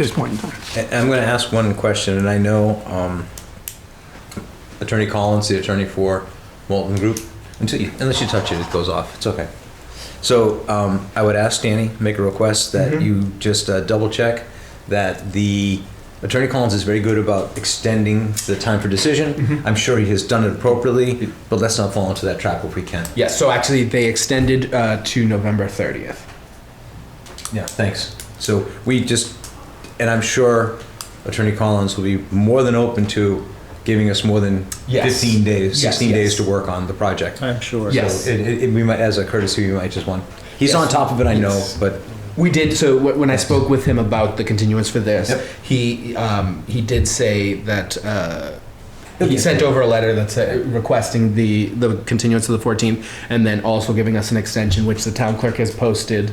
this point in time. I- I'm going to ask one question, and I know um, Attorney Collins, the attorney for Walton Group, until you, unless you touch it, it goes off. It's okay. So um, I would ask Danny, make a request that you just uh, double check that the Attorney Collins is very good about extending the time for decision. I'm sure he has done it appropriately, but let's not fall into that trap if we can. Yes, so actually they extended uh, to November 30th. Yeah, thanks. So we just, and I'm sure Attorney Collins will be more than open to giving us more than Yes. 15 days, Yes, 16 days yes. to work on the project. I'm sure. Yes. It, it, it- we might, as a courtesy, we might just want, he's Yes. on top of it, I know, Yes. but We did. So wh- when I spoke with him about the continuance for this, Yep. he um, he did say that uh, Okay. he sent over a letter that's uh, requesting the the continuance of the 14th, and then also giving us an extension, which the town clerk has posted.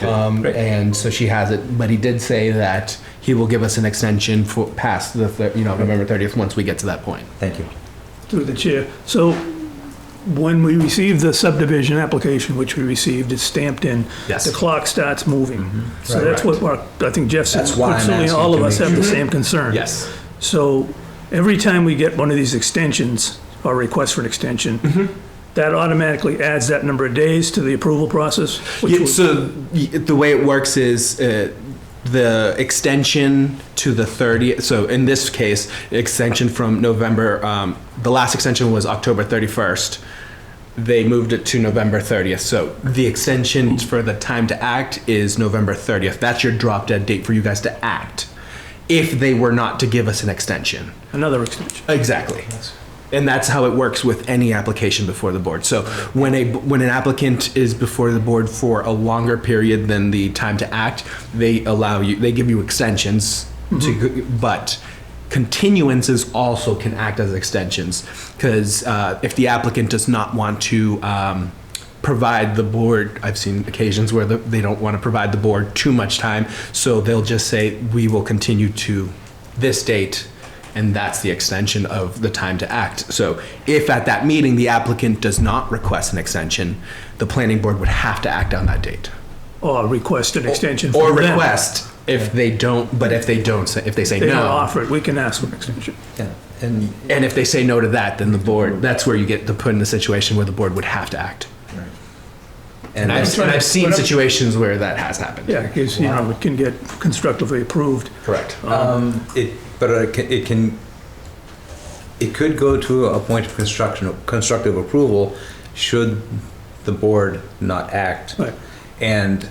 Um, Great. and so she has it, but he did say that he will give us an extension for past the thir- you know November 30th once we get to that point. thank you. through the chair. So when we receive the subdivision application, which we received, it's stamped in. Yes. The clock starts moving. So that's what, our- I think Jeff said, That's why I'm certainly asking all of to us make have the sure. same concern. So every time we get one of these extensions or request for an extension, that automatically adds that number of days to the approval process, which Yeah, would so y- the way it works is uh, the extension to the 30th. So in this case, extension from November, um, the last extension was October 31st. They moved it to November 30th. So the extension for the time to act is November 30th. That's your drop dead date for you guys to act if they were not to give us an extension. another extension. Exactly. And that's how it works with any application before the board. So when a when an applicant is before the board for a longer period than the time to act, they allow you they give you extensions to but continuances also can act as extensions because uh, if the applicant does not want to um, provide the board i've seen occasions where the, they don't want to provide the board too much time so they'll just say we will continue to this date and that's the extension of the time to act. So if at that meeting the applicant does not request an extension, the planning board would have to act on that date. Or request an extension Or from them. request if they don't, but if they don't, say- if they say They don't no. offer it, we can ask for an extension. Yeah, and And if they say no to that, then the board, that's where you get to put in the situation where the board would have to act. and And that's, I've, and I've seen situations where that has happened. Yeah, because, you know, it can get constructively approved. Correct. um, it, but it can- it can, it could go to a point of construction, constructive approval should the board not act. Right. And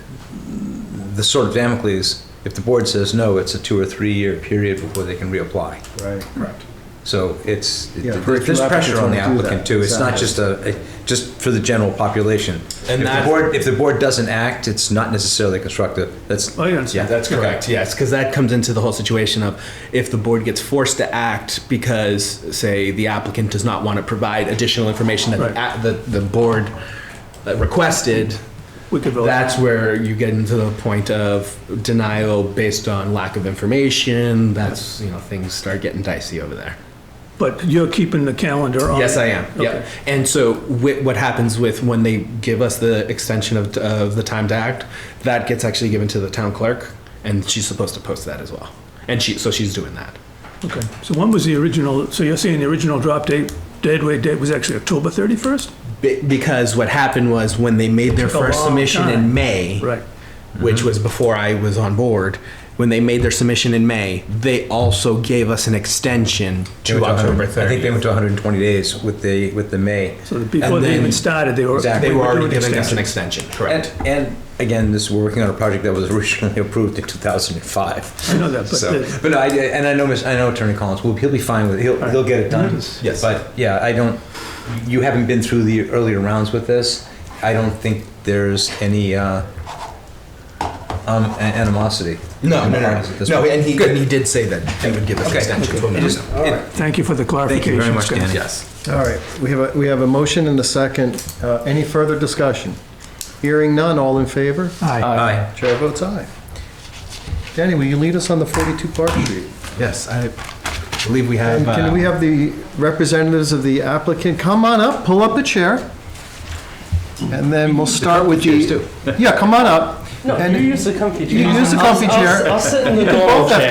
the sort of Damocles, if the board says no, it's a two or three-year period before they can reapply. Right. Correct. So it's, Yeah, there's very few there's pressure on the applicants wanna do applicant that, too. It's not just a, a- just for the general population. If And the that- board, if the board doesn't act, it's not necessarily constructive. That's, Oh, you understand? yeah. That's Okay. correct. Yes, because that comes into the whole situation of if the board gets forced to act because, say, the applicant does not want to provide additional information that Right. the, the, the board that requested. We could vote. That's where you get into the point of denial based on lack of information. That's you know things start getting dicey over there. But you're keeping the calendar on? Yes, I am. Okay. Yeah. And so whi- what happens with when they give us the extension of, of the time to act, that gets actually given to the town clerk and she's supposed to post that as well. And she, so she's doing that. Okay, so when was the original, so you're saying the original drop date, deadweight date was actually October 31st? Be- Because what happened was when they made their Took a first long submission time. in May, Right, which was before I was on board, when they made their submission in May, they also gave us an extension They went to October 100 I think they 30th. went to 120 days with the, with the May. so before And they then- even started, they were. Exactly. They were already doing giving us an extensions. extension, And, correct? and again, this, we're working on a project that was originally approved in 2005. I know that, but So, the- but no, I, and I know, Miss- I know Attorney Collins, will he'll be fine with it, he'll, he'll get it done. Yes. But, yeah, I don't, you haven't been through the earlier rounds with this. I don't think there's any, uh, um, a- animosity. No, no, no, At this no, point. and he, and he did say that they would give us an Okay. extension to It just- amend. it- thank you for the Thank clarification. you very much, Scott. Danny. Yes. All right, we have, a we have a motion and a second. Uh, Any further discussion? Hearing none, all in favor? Aye. Aye. Chair votes aye. Danny, will you lead us on the 42 Park Street? Yes, I believe we have. And can uh, we have the representatives of the applicant come on up, pull up a chair? And then we'll start with chairs the. too. Yeah, come on up. No, And- you use the comfy chair. You use the comfy I'll- I'll- chair. I'll sit in the normal chair.